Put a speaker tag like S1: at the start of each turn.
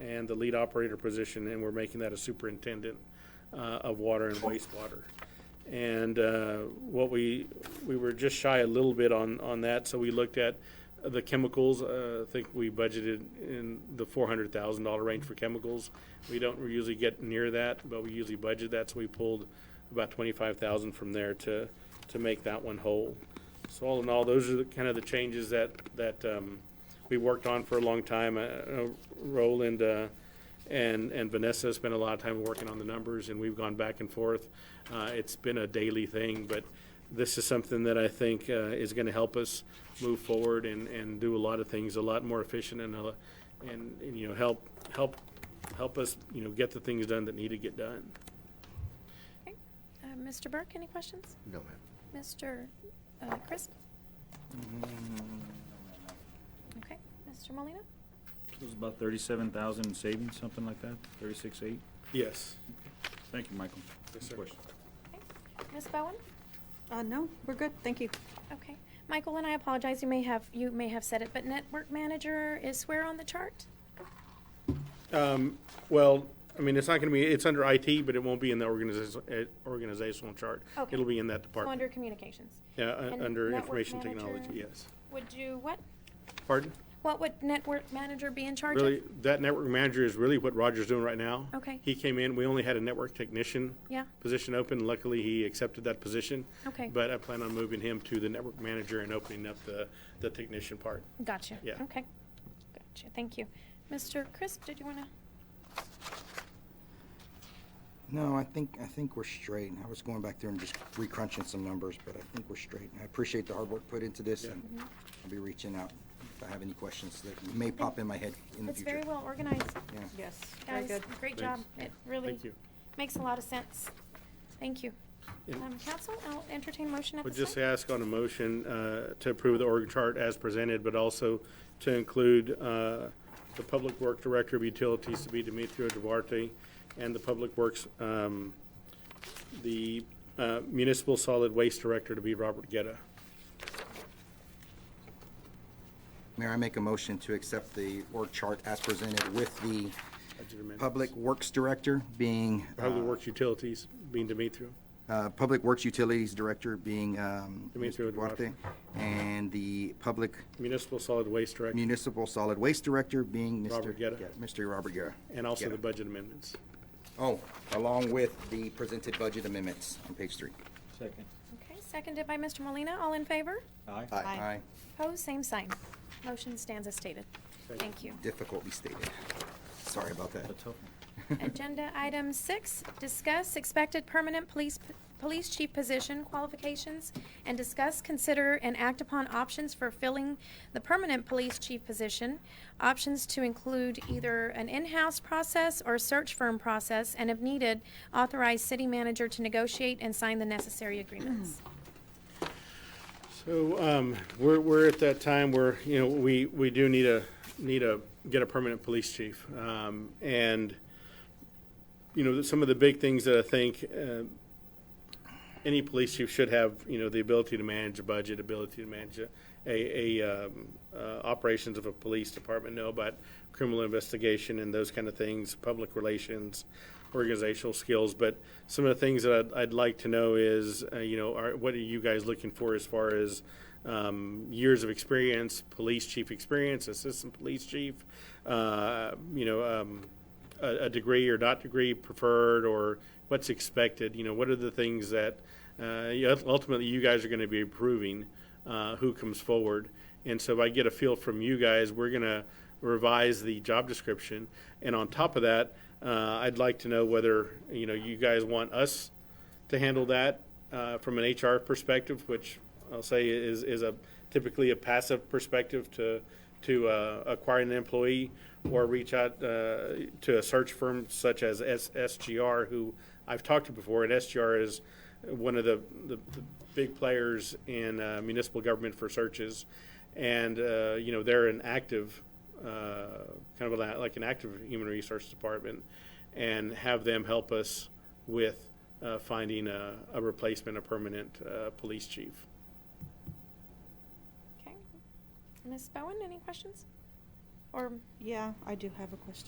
S1: and the lead operator position, and we're making that a superintendent uh, of water and wastewater. And uh, what we, we were just shy a little bit on, on that, so we looked at the chemicals. uh, I think we budgeted in the four hundred thousand dollar range for chemicals. We don't usually get near that, but we usually budget that, so we pulled about twenty-five thousand from there to, to make that one whole. So all in all, those are the, kind of the changes that, that, um, we worked on for a long time. Uh, uh, Roland, uh, and, and Vanessa spent a lot of time working on the numbers, and we've gone back and forth. Uh, it's been a daily thing, but this is something that I think, uh, is gonna help us move forward and, and do a lot of things a lot more efficient and, uh, and, and, you know, help, help, help us, you know, get the things done that need to get done.
S2: Okay. Uh, Mr. Burke, any questions?
S3: No, ma'am.
S2: Mr. uh, Crisp?
S3: Mm-hmm.
S2: Okay. Mr. Molina?
S4: It was about thirty-seven thousand in savings, something like that, thirty-six eight.
S1: Yes.
S4: Thank you, Michael.
S1: Yes, sir.
S4: Question.
S2: Okay. Ms. Bowen?
S5: Uh, no, we're good, thank you.
S2: Okay. Michael, and I apologize, you may have, you may have said it, but network manager is where on the chart?
S1: Um, well, I mean, it's not gonna be, it's under IT, but it won't be in the organization, organizational chart.
S2: Okay.
S1: It'll be in that
S2: So
S1: department.
S2: under communications.
S1: Yeah, uh,
S2: and
S1: under
S2: network
S1: information
S2: manager.
S1: technology, yes.
S2: Would you, what,
S1: Pardon?
S2: what would network manager be in charge of?
S1: Really, that network manager is really what Roger's doing right now.
S2: Okay.
S1: He came in, we only had a network technician
S2: Yeah,
S1: position open. Luckily, he accepted that position.
S2: Okay.
S1: But I plan on moving him to the network manager and opening up the, the technician part.
S2: gotcha.
S1: Yeah.
S2: Okay. Gotcha, thank you. Mr. Crisp, did you want to?
S3: No, I think, I think we're straight. I was going back there and just re-crunching some numbers, but I think we're straight. I appreciate the hard work put into this,
S1: Yeah.
S3: and I'll be reaching out if I have any questions that may pop in my head in the
S2: It's
S3: future.
S2: very well organized.
S3: Yeah.
S5: Yes, very
S2: Guys,
S5: good.
S2: great
S1: Thanks.
S2: job. It really
S1: Thank you.
S2: makes a lot of sense. Thank you.
S1: And-
S2: Um, council, I'll entertain motion at
S1: Would
S2: this
S1: just
S2: time.
S1: ask on a motion uh, to approve the org chart as presented, but also to include uh, the Public Work Director of Utilities to be Demetrio Duarte, and the Public Works, um, the uh, Municipal Solid Waste Director to be Robert Getta.
S3: Mayor, I make a motion to accept the org chart as presented with the Public Works Director being,
S1: Public
S3: uh,
S1: Works Utilities being Demetrio.
S3: uh, Public Works Utilities Director being um,
S1: Demetrio
S3: Mr. Duarte, and the Public
S1: Municipal Solid Waste Director,
S3: Municipal Solid Waste Director being Mr.
S1: Robert Guerra.
S3: Guerra- Mr. Robert Guerra.
S1: and also the
S3: Guerra.
S1: budget amendments.
S3: Oh, along with the presented budget amendments on page three.
S4: Second.
S2: Okay, seconded by Mr. Molina. All in favor?
S4: Aye.
S5: Aye.
S2: Opposed, same sign. Motion stands as stated. Thank you.
S3: Difficultly stated. Sorry about that.
S4: A tough one.
S2: Agenda item six, discuss expected permanent police, police chief position qualifications and discuss, consider, and act upon options for filling the permanent police chief position. Options to include either an in-house process or search firm process, and if needed, authorize city manager to negotiate and sign the necessary agreements.
S1: So, um, we're, we're at that time where, you know, we, we do need a, need a, get a permanent police chief. Um, and, you know, some of the big things that I think, uh, any police chief should have, you know, the ability to manage a budget, ability to manage a, a, a, um, uh, operations of a police department, know about criminal investigation and those kind of things, public relations, organizational skills. But some of the things that I'd, I'd like to know is, uh, you know, are, what are you guys looking for as far as, um, years of experience, police chief experience, assistant police chief, uh, you know, um, a, a degree or not degree preferred or what's expected? You know, what are the things that uh, you- ultimately you guys are going to be approving uh, who comes forward? And so if I get a feel from you guys, we're going to revise the job description. And on top of that, uh, I'd like to know whether, you know, you guys want us to handle that uh, from an HR perspective, which I'll say is, is a typically a passive perspective to, to uh, acquiring an employee or reach out uh, to a search firm such as S- SGR, who I've talked to before, and SGR is one of the, the, the big players in uh, municipal government for searches. And, uh, you know, they're an active, uh, kind of a- like an active human resource department, and have them help us with uh, finding a, a replacement, a permanent uh, police chief.
S2: Okay. Ms. Bowen, any questions? Or
S5: Yeah, I do have a question.